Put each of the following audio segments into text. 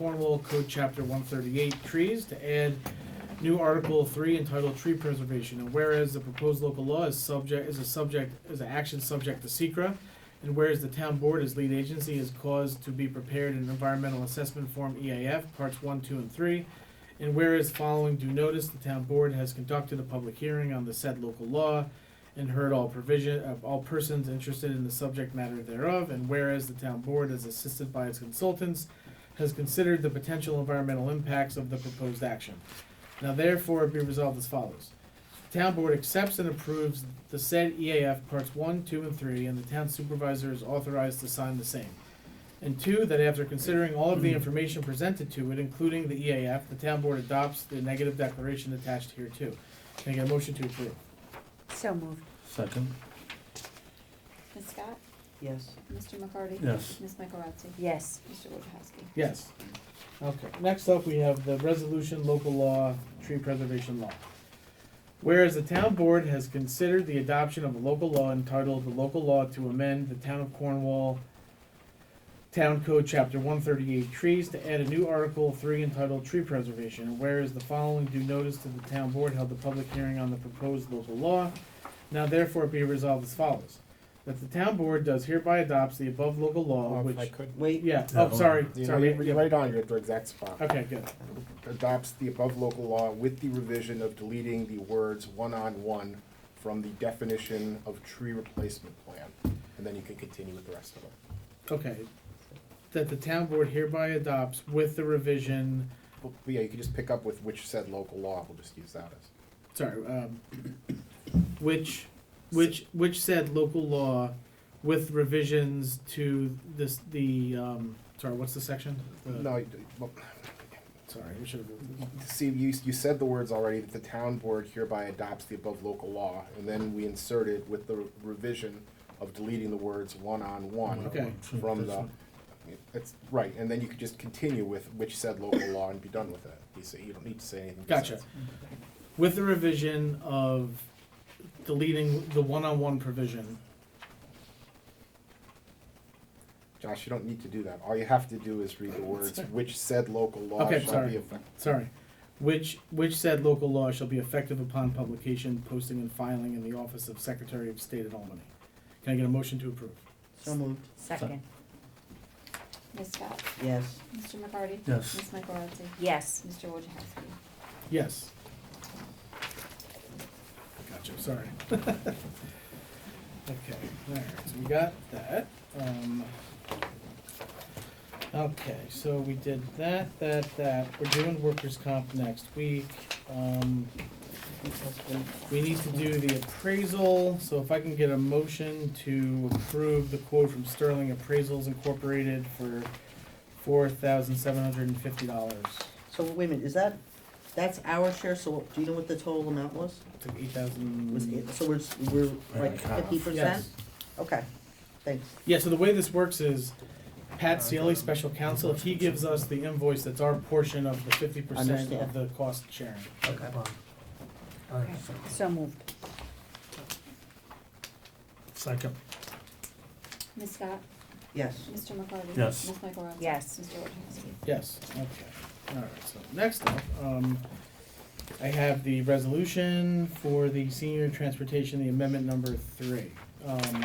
Cornwall Code Chapter one thirty-eight, trees, to add new Article three entitled Tree Preservation. And whereas the proposed local law is subject, is a subject, is an action subject to secra, and whereas the town board as lead agency is caused to be prepared an environmental assessment form EAF, parts one, two, and three, and whereas following due notice, the town board has conducted a public hearing on the said local law and heard all provision of all persons interested in the subject matter thereof, and whereas the town board is assisted by its consultants, has considered the potential environmental impacts of the proposed action. Now therefore be resolved as follows. The Town board accepts and approves the said EAF parts one, two, and three, and the town supervisor is authorized to sign the same. And two, that after considering all of the information presented to it, including the EAF, the town board adopts the negative declaration attached hereto. Can I get a motion to approve? So moved. Second, Ms. Scott? Yes. Mr. McCarty? yes. Ms. Michaelozzi? Yes. Mr. Wojciechowski? Yes. Okay, next up, we have the resolution local law, tree preservation law. Whereas the town board has considered the adoption of a local law entitled the local law to amend the town of Cornwall Town Code Chapter one thirty-eight trees to add a new article three entitled tree preservation. And Whereas the following due notice to the town board held a public hearing on the proposed local law. Now therefore be resolved as follows, that the town board does hereby adopts the above local law, Well, which. if I could, Wait, Yeah, Yeah, oh, sorry, you know, sorry. Uh, you're right on, you're at the exact spot. Okay, good. Adopts the above local law with the revision of deleting the words one-on-one from the definition of tree replacement plan. And then you can continue with the rest of it. Okay. That the town board hereby adopts with the revision, But yeah, you can just pick up with which said local law, we'll just use that as. sorry, um, which, which, which said local law with revisions to this, the, um, sorry, what's the section? The- No, you- well, Sorry, we should have, see, you, you said the words already, that the town board hereby adopts the above local law, and then we inserted with the revision of deleting the words one-on-one Okay. from the, That's right, and then you could just continue with which said local law and be done with it. You say, you don't need to say anything. gotcha. besides. With the revision of deleting the one-on-one provision. Josh, you don't need to do that. All you have to do is read the words, which said local law Okay, shall sorry. be effective. sorry, which, which said local law shall be effective upon publication, posting, and filing in the office of Secretary of State at Albany. Can I get a motion to approve? so moved. Second, Ms. Scott? yes. Mr. McCarty? Yes. Ms. Michaelozzi? Yes. Mr. Wojciechowski? Yes. Gotcha, sorry. Okay, alright, so we got that, um. Okay, so we did that, that, that, we're doing workers' comp next week, um. We need to do the appraisal, so if I can get a motion to approve the quote from Sterling Appraisals Incorporated for four thousand seven hundred and fifty dollars. So wait a minute, is that, that's our share, so what- do you know what the total amount was? Took eight thousand. Was it, so we're, s- we're like Right, half. fifty percent? Yes. Okay, thanks. Yeah, so the way this works is Pat Sealy, special counsel, he gives us the invoice that's our portion of the fifty percent of Understand. the cost sharing. Okay. So moved, Second, Ms. Scott? Yes. Mr. McCarty? Yes. Ms. Michaelozzi? Yes. Mr. Wojciechowski? Yes, okay. All right, so next up, um, I have the resolution for the senior transportation, the amendment number three. Um,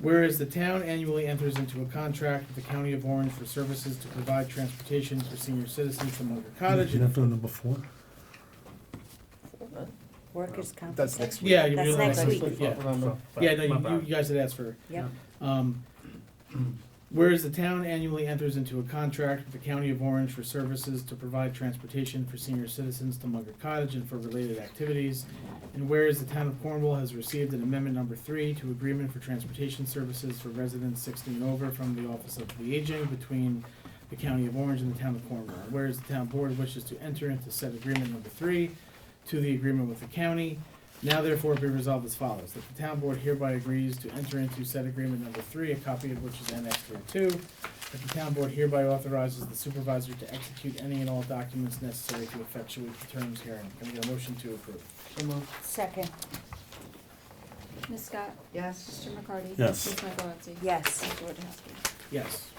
Whereas the town annually enters into a contract with the county of Orange for services to provide transportation for senior citizens from Munger Cottage. you're not doing number four? workers' comp. That's next week. Yeah, you're That's doing next that next week. week, yeah. Remember. Yeah, no, you, you guys had asked for. Yep, Um, whereas the town annually enters into a contract with the County of Orange for services to provide transportation for senior citizens to Munger Cottage and for related activities. And whereas the town of Cornwall has received an amendment number three to agreement for transportation services for residents sixteen and over from the Office of the Aging between the County of Orange and the town of Cornwall. Whereas the town board wishes to enter into said agreement number three to the agreement with the county. Now therefore be resolved as follows, that the town board hereby agrees to enter into said agreement number three, a copy of which is annexed here too. That the town board hereby authorizes the supervisor to execute any and all documents necessary to effectuate the terms herein. Can I get a motion to approve? So moved. second, Ms. Scott? Yes. Mr. McCarty? Yes. Ms. Michaelozzi? yes. Mr. Wojciechowski? Yes.